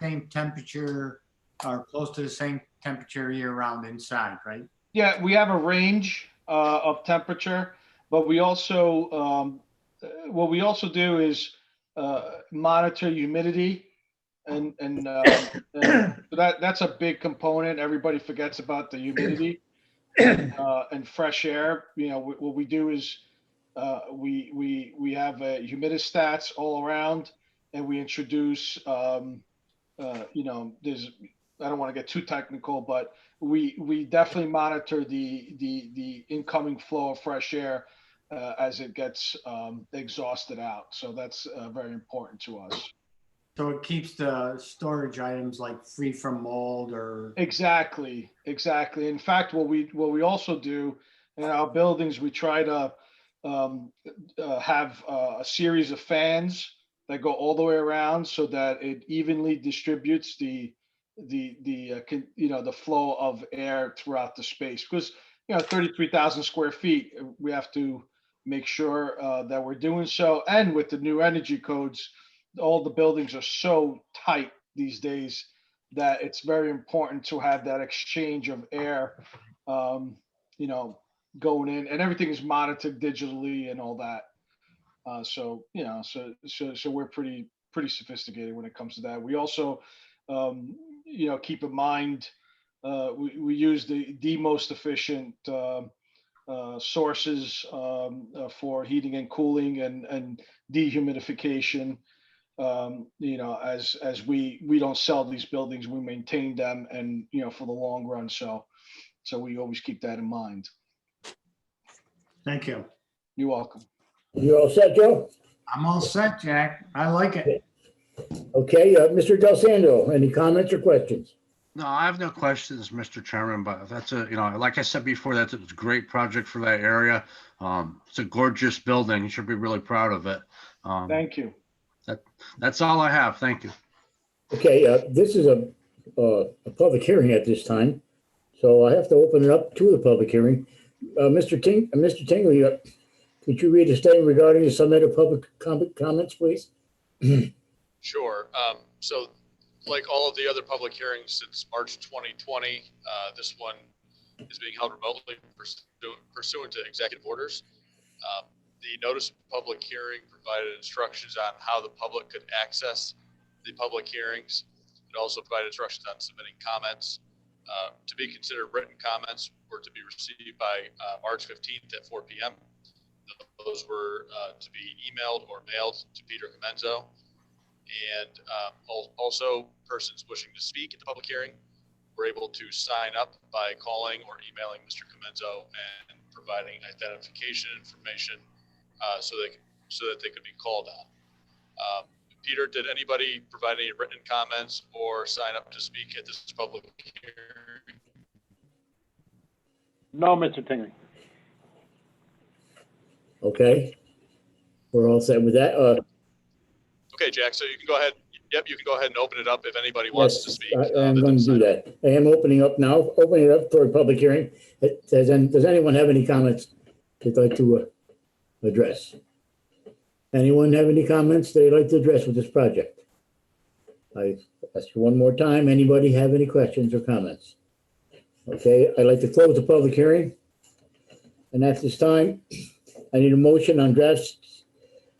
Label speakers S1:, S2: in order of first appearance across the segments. S1: same temperature or close to the same temperature year round inside, right?
S2: Yeah, we have a range uh, of temperature, but we also, um, uh, what we also do is uh, monitor humidity. And, and uh, and so that, that's a big component. Everybody forgets about the humidity uh, and fresh air. You know, wh- what we do is uh, we, we, we have uh, humidistats all around and we introduce, um, uh, you know, there's, I don't want to get too technical, but we we definitely monitor the the the incoming flow of fresh air uh, as it gets um, exhausted out. So that's uh, very important to us.
S1: So it keeps the storage items like free from mold or,
S2: Exactly, exactly. In fact, what we what we also do in our buildings, we try to um, uh, have uh, a series of fans that go all the way around so that it evenly distributes the the the uh, con- you know the flow of air throughout the space because you know 33,000 square feet uh, we have to make sure uh, that we're doing so and with the new energy codes all the buildings are so tight these days that it's very important to have that exchange of air, um, you know, going in, and everything is monitored digitally and all that. Uh, so you know, so so so we're pretty pretty sophisticated when it comes to that. We also, um, you know, keep in mind uh, we we use the the most efficient. Uh, uh, sources um, uh, for heating and cooling and, and dehumidification um, you know, as, as we, we don't sell these buildings, we maintain them and, you know, for the long run. So, so we always keep that in mind.
S1: thank you.
S2: You're welcome.
S3: You all set, Joe?
S1: I'm all set, Jack. I like it.
S3: Okay, uh, Mr. Del Sando, any comments or questions?
S4: No, I have no questions, Mr. Chairman, but that's a, you know, like I said before, that's a great project for that area. Um, it's a gorgeous building. You should be really proud of it. Um,
S2: Thank you.
S4: that's all I have. Thank you.
S3: Okay, uh, this is a, uh, a public hearing at this time, so I have to open it up to the public hearing. Uh, Mr. Ting, uh, Mr. Tingley, uh, could you read a statement regarding the submitted public com- comments, please?
S5: Sure. Um, So like all of the other public hearings since March 2020, uh, this one is being held remotely pursuant- pursuant to executive orders. Um, The notice of public hearing provided instructions on how the public could access the public hearings. It also provided instructions on submitting comments. Uh, To be considered written comments were to be received by uh, March 15th at 4 PM. Those were uh, to be emailed or mailed to Peter Comenzo. And um, al- also, persons wishing to speak at the public hearing were able to sign up by calling or emailing Mr. Comenzo and providing identification information uh, so they, so that they could be called on. Um, Peter, did anybody provide any written comments or sign up to speak at this public hearing?
S6: No, Mr. Tingley.
S3: Okay. We're all set with that. Uh,
S5: Okay, Jack, so you can go ahead, yep, you can go ahead and open it up if anybody wants to
S3: yes,
S5: speak.
S3: I-
S5: uh,
S3: I'm
S5: that
S3: going to
S5: didn't
S3: do
S5: sign up.
S3: that. I am opening up now, opening it up for a public hearing. Uh, Does, an- does anyone have any comments they'd like to uh, address? Anyone have any comments they'd like to address with this project? I ask you one more time, anybody have any questions or comments? Okay, I'd like to close the public hearing. And at this time, I need a motion on draft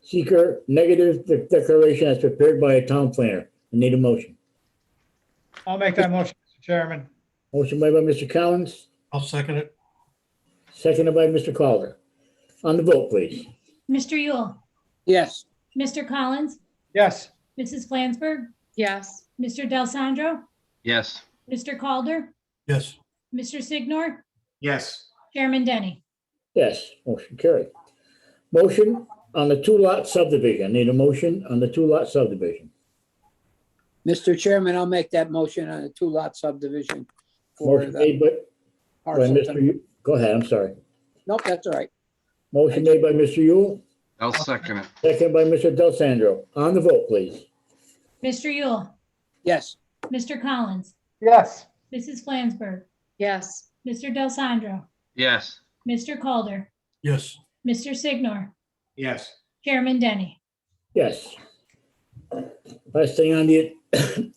S3: seeker negative de- declaration as prepared by a town planner. I need a motion.
S7: I'll make that motion, Mr. Chairman.
S3: Motion made by Mr. Collins,
S7: I'll second it.
S3: seconded by Mr. Calder. On the vote, please.
S8: Mr. Yule,
S6: Yes.
S8: Mr. Collins,
S7: Yes,
S8: Mrs. Flansburgh,
S9: Yes,
S8: Mr. Del Sandro,
S4: Yes,
S8: Mr. Calder.
S7: Yes.
S8: Mr. Signor,
S1: Yes,
S8: Chairman Denny.
S3: Yes, motion carried. Motion on the two-lot subdivision. Need a motion on the two-lot subdivision.
S6: Mr. Chairman, I'll make that motion on a two-lot subdivision for
S3: Motion
S6: the
S3: made by, by
S6: parcel.
S3: Mr.
S6: to-
S3: Yule. Go ahead, I'm sorry.
S6: Nope, that's all right.
S3: Motion made by Mr. Yule,
S4: I'll second it.
S3: seconded by Mr. Del Sandro. On the vote, please.
S8: Mr. Yule,
S6: Yes,
S8: Mr. Collins,
S7: yes,
S8: Mrs. Flansburgh,
S9: yes,
S8: Mr. Del Sandro,
S4: Yes,
S8: Mr. Calder. Yes. Mr. Signor,
S1: yes.
S8: Chairman Denny.
S3: Yes. Last thing on the